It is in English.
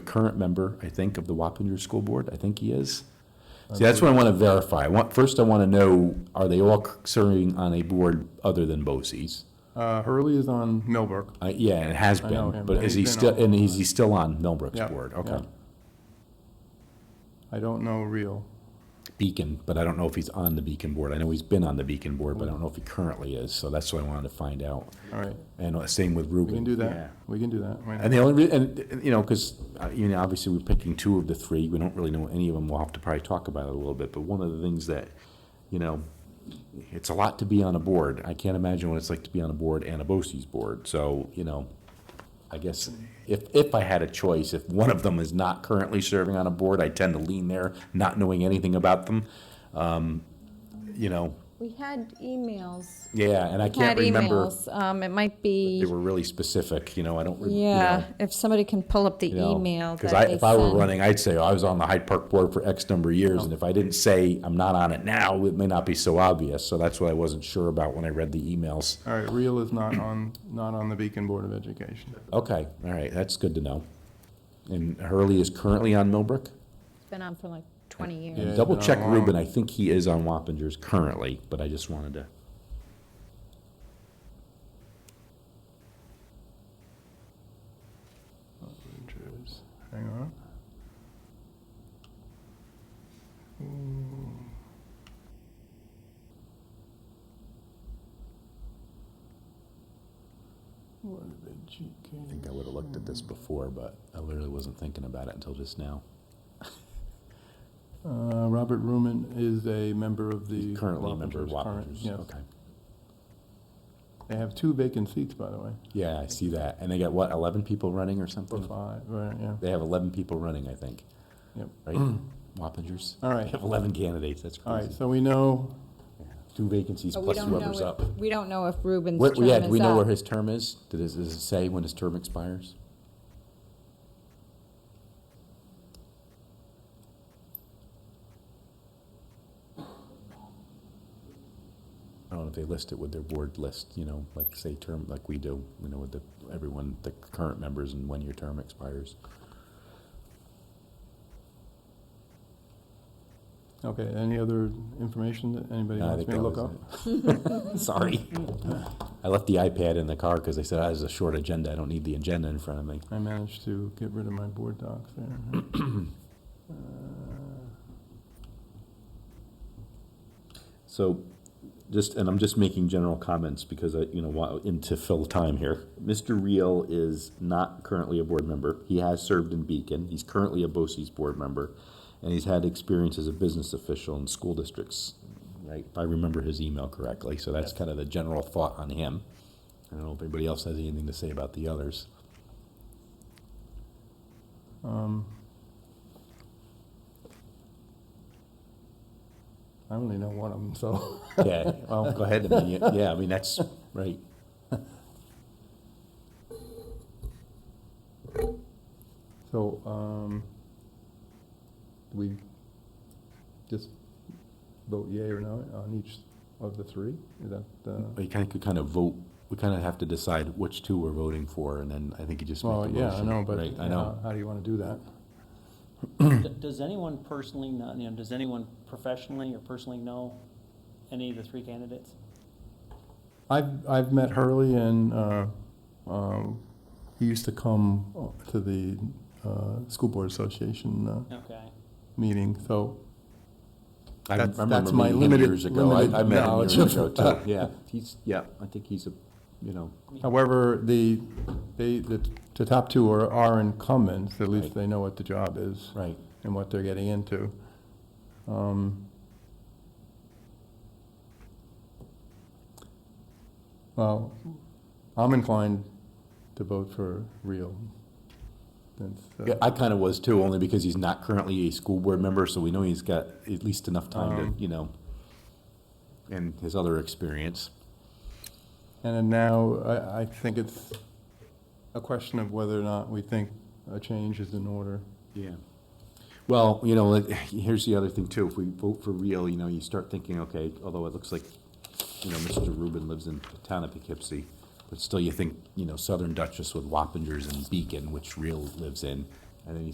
current member, I think, of the Wappinger School Board. I think he is. See, that's what I want to verify. I want, first I want to know, are they all c- serving on a board other than Bosse's? Uh, Hurley is on Millbrook. Uh, yeah, and it has I know been, him. but is He's he been still, on- and is he still on Millbrook's Yeah, board? yeah. Okay. I don't know Real. Beacon, but I don't know if he's on the Beacon board. I know he's been on the Beacon board, but I don't know if he currently is, so that's what I wanted to find out. All right, And uh, same with we can Ruben. do Yeah. that. We can do that. Why And not? the only, rea- and, and, you know, because, you know, obviously we're picking two of the three, we don't really know any of them, we'll have to probably talk about it a little bit, but one of the things that, you know, it's a lot to be on a board, I can't imagine what it's like to be on a board and a BOCES board, so, you know, I guess if, if I had a choice, if one of them is not currently serving on a board, I tend to lean there, not knowing anything about them. Um, You know, We had emails. yeah, and I Had can't remember, emails. Um, it might be, they were really specific, you know, I don't, re- you know. yeah, if somebody can pull up the you know, email that Because I, they if I were sent. running, I'd say, oh, I was on the Hyde Park board for X number of Oh. years, and if I didn't say I'm not on it now, it may not be so obvious, so that's what I wasn't sure about when I read the emails. All right, Real is not on, not on the Beacon Board of Education. Okay, all right, that's good to know. And Hurley is currently on Millbrook? It's Been on for like 20 Yeah. years. he's Double been check on Ruben, long. I think he is on Wappingers currently, but I just wanted to. Hang on. Ooh. What did they I cheat? think I would have looked at this before, but I literally wasn't thinking about it until just now. Uh, Robert Ruman is a member of the. Currently a member of Wappingers, current- Wappingers, yes. okay. They have two vacant seats, by the way, Yeah, I see that. And they got, what, 11 people running or or something? five, right, yeah. They have 11 people running, I think. Yep. Right? Wappingers? Hmm. All They right, have 11 candidates, that's all right, crazy. so we know, Two vacancies But we plus don't whoever's know up. if, we don't know if Ruben's Where- term Yeah, is do we know where up. his term is? Did it- Does it say when his term expires? I don't know if they list it with their board list, you know, like say term, like we do, you know, with the, everyone, the current members and when your term expires. okay, any other information that anybody No, I wants think me to that look was up? it. Sorry. I left the iPad in the car because I said, "Ah, "This is a short agenda. I don't need the agenda in front of me." I managed to get rid of my board docs there. Uh, So, just and I'm just making general comments because I, you know, wa- and to fill time here. Mr. Reel is not currently a board member. He has served in Beacon. He's currently a BOCES board member, and he's had experience as a business official in school districts. Right, if I remember his email correctly. So that's kind of the general thought on him. I don't know if anybody else has anything to say about the others. um, I only know one of them, so, Yeah, well, go ahead. I mean, yeah- Yeah, I mean, that's, right. so, um, do we just vote yea or no on each of the three? Is that, uh, We kind of could kind of vote, we kind of have to decide which two we're voting for, and then I think you just make a well, motion. yeah, I know, but right? I uh, know. how do you want to do that? D- Does anyone personally, not, you know, does anyone professionally or personally know any of the three candidates? I've, I've met Hurley and, uh, um, he used to come to the, uh, School Board Association, uh, Okay. meeting, so I that's- remember that's my meeting him limited- years ago. I- limited I met him knowledge years of- ago, too. Yeah, he's, yeah, I think he's a, you know, However, the, they, the, the top two are, are incumbents, at least Right. they know what the job is right. and what they're getting into. Um, Well, I'm inclined to vote for real. Since, uh, Yeah, I kind of was too, only because he's not currently a school board member, so we know he's got at least enough time Um, to, you know, and his other experience. And then now, I, I think it's a question of whether or not we think a change is in order. Yeah. Well, you know, like, here's the other thing too. If we vote for real, you know, you start thinking, okay, although it looks like, you know, Mr. Rubin lives in the town of Poughkeepsie, but still you think, you know, Southern Duchess with Wappingers and Beacon, which real lives in, and then you